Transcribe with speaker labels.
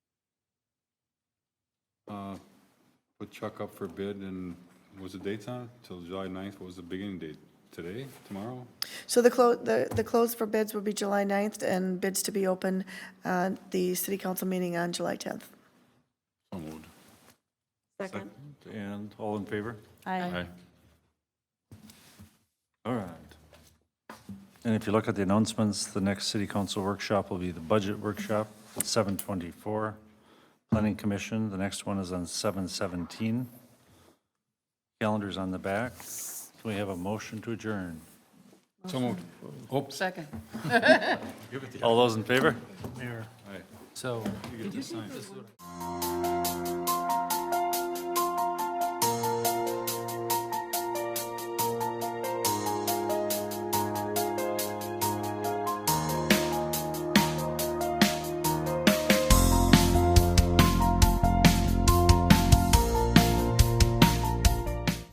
Speaker 1: uh, put Chuck up for bid and was the dates on it? Till July 9th, what was the beginning date? Today, tomorrow?
Speaker 2: So the clo, the, the close for bids would be July 9th and bids to be open at the city council meeting on July 10th.
Speaker 1: So moved.
Speaker 3: Second.
Speaker 4: And all in favor?
Speaker 1: Aye.
Speaker 4: All right. And if you look at the announcements, the next city council workshop will be the budget workshop at 7:24. Planning Commission, the next one is on 7:17. Calendar's on the back. Can we have a motion to adjourn?
Speaker 1: So moved. Oops.
Speaker 5: Second.
Speaker 4: All those in favor?
Speaker 1: Aye.
Speaker 6: So.
Speaker 1: You get to sign.